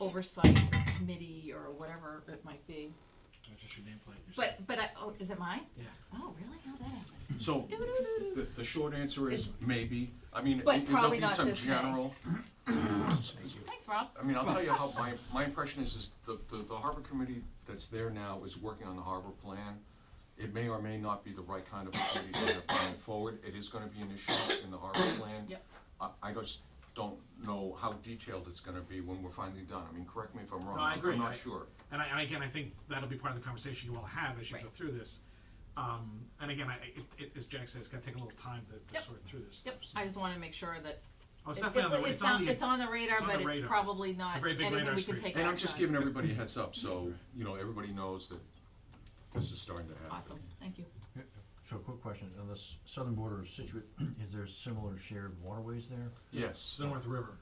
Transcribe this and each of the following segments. oversight committee or whatever it might be. That's just your nameplate. Your But, but I, oh, is it mine? Yeah. Oh, really? How that happened? So, Doo-doo-doo-doo. the, the short answer is maybe, I mean, it- But there'll probably be not some this May. general, Thanks, Rob. I mean, I'll tell you how, my, my impression is, is the, the, the harbor committee that's there now is working on the harbor plan. It may or may not be the right kind of committee to have going forward, it is gonna be an issue in the harbor plan. Yep. I, I just don't know how detailed it's gonna be when we're finally done, I mean, correct me if I'm wrong, No, I agree. I'm not I- sure. And I, and again, I think that'll be part of the conversation you all have as you go Right. through this. Um, and again, I, it, it, as Jack said, it's gotta take a little time to, to Yep. sort through this Yep, stuff. so- I just wanna make sure that. Oh, it's it- definitely on it- the, it's on the. It's on the radar, it's on but the it's radar. probably not very big anything radar we can screen. take And I'm action just on. giving everybody a heads up, so, you know, everybody knows that this is starting to happen. Awesome, thank you. So, quick question, on the s- southern border of Situate, is there similar shared waterways there? It's Yes, the North River,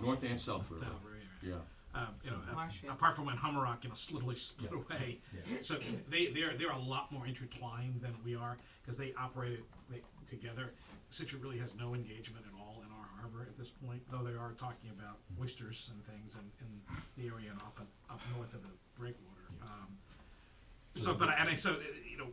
north and south the river, Delaware River. yeah. Um, you know, a- Marshfield. apart from when Hummerock, you know, s- literally split away. Yeah. So they, they're, they're a lot more intertwined than we are, cause they operate it, they, together. Situate really has no engagement at all in our harbor at this point, though they are talking about Mm-hmm. oysters and things in, in the area and up, and up north of the breakwater. Um, So, but, I- and I, so, uh, you know,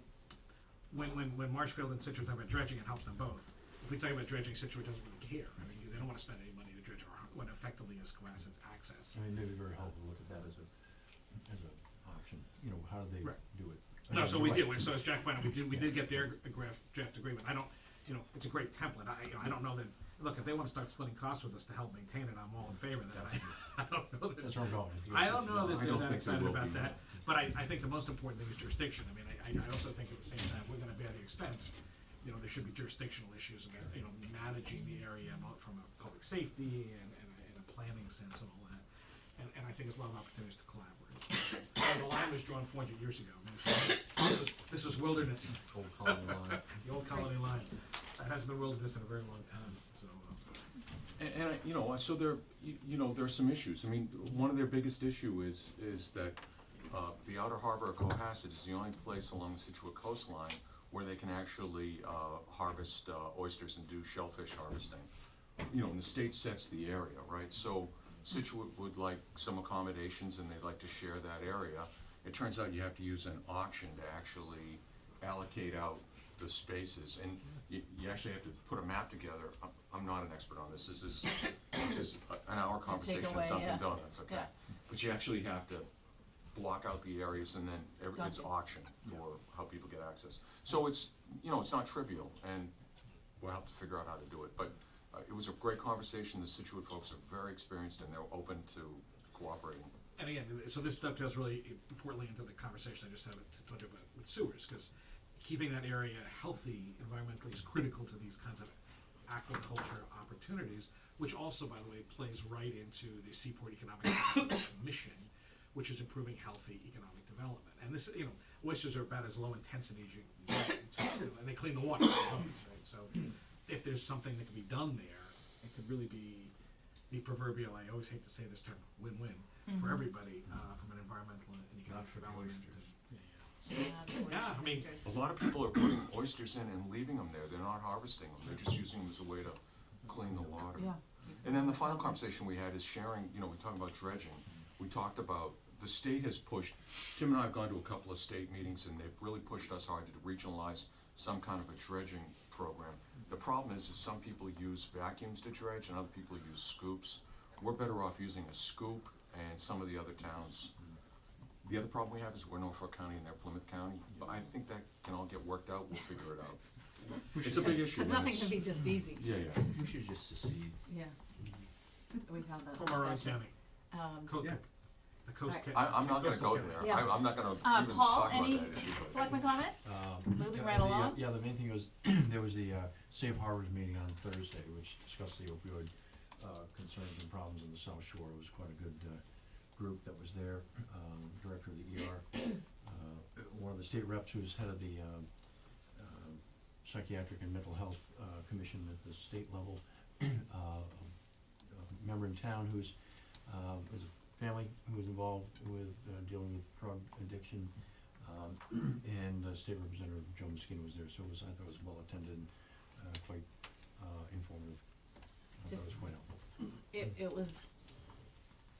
when, when, when Marshfield and Situate talk about dredging, it helps them both. If we talk about dredging, Situate doesn't really care, I mean, they don't wanna spend any money to dredge our, har- what effectively is Cohasset's access. I mean, maybe very helpful to look at that as a, as an option, you know, how do they Right. do it? No, Again, so you're we right. did, so as Jack pointed, out, we did, we did get their draft, draft agreement, I don't, you know, it's a great template, I, you know, I don't know that, look, if they wanna start splitting costs with us to help maintain it, I'm all in favor of that, I, I don't know That's that, where I'm going. is to get- I don't know I that they're don't think that they excited will be. about that, but I, I think the most important thing is jurisdiction, I mean, I, I, I also think at the same time, we're gonna bear the expense, you know, there should be jurisdictional issues about, you know, managing the area mo- from a public safety and, and, a- and a planning sense and all that, and, and I think there's a lot of opportunities to collaborate. Uh, the line was drawn four hundred years ago, I mean, this was- this was, this was wilderness, Old colony line. the old colony line, that hasn't been wilderness in a very long time, so, uh, And, and, I- you know, so there, you, you know, there are some issues. I mean, one of their biggest issue is, is that, uh, the outer harbor of Cohasset is the only place along the Situate coastline where they can actually, uh, harvest, uh, oysters and do shellfish harvesting. You know, and the state sets the area, right? So Situate would like some accommodations and they'd like to share that area. It turns out you have to use an auction to actually allocate out the spaces, and you, you actually have to put a map together. I'm, I'm not an expert on this, this is, this is a- an hour conversation away, at Dunkin' yeah. Donuts, okay? Yeah. But you actually have to block out the areas and then every, it's Dunkin'. auctioned for how people get access. So it's, you know, it's not trivial, and we'll have to figure out how to do it, but, uh, it was a great conversation, the Situate folks are very experienced and they're open to cooperating. and again, th- so this dovetails really importantly into the conversation I just had with, told you about with sewers, cause keeping that area healthy environmentally is critical to these kinds of aquaculture opportunities, which also, by the way, plays right into the Seaport Economic Development Mission, which is improving healthy economic development. And this, you know, oysters are about as low intensity as you can get, too, and they clean the water, from the boats, right? So if there's something that can be done there, it could really be the proverbial, I always hate to say this term, win-win for everybody, uh, from an environmental and economic development. and- Yeah, I mean, A lot of people are putting oysters in and leaving them there, they're not harvesting them, they're just using them as a way to clean the water. Yeah. And then the final conversation we had is sharing, you know, we talked about dredging, we talked about, the state has pushed, Tim and I have gone to a couple of state meetings and they've really pushed us hard to regionalize some kind of a dredging program. The problem is, is some people use vacuums to dredge and other people use scoops. We're better off using a scoop and some of the other towns. The other problem we have is we're Norfolk County and they're Plymouth County, but I think that can all get worked out, we'll figure it out. It's a big issue. Cause nothing it's- can be Hmm. just easy, Yeah, yeah. We should just secede. yeah. We've had that From our own discussion. county, Um, co- Yeah. the coast. Alright. ca- I, I'm not gonna coastal go county. there, Yeah. I, I'm not gonna Uh, even Paul, talk about that any issue, but- selectmen comment? Um, Moving yeah, right the, uh, along. Yeah, the main thing was, there was the, uh, Safe Harbors meeting on Thursday, which discussed the opioid, uh, concerns and problems in the South Shore. It was quite a good, uh, group that was there, um, director of the ER, uh, one of the state reps who's head of the, um, um, psychiatric and mental health, uh, commission at the state level, uh, a member in town who's, uh, is a family who was involved with, uh, dealing with drug addiction. Um, and uh, State Representative Joan Skinner was there, so it was, I thought it was well attended, uh, quite, uh, informative. I thought it Just- was quite helpful. It, it was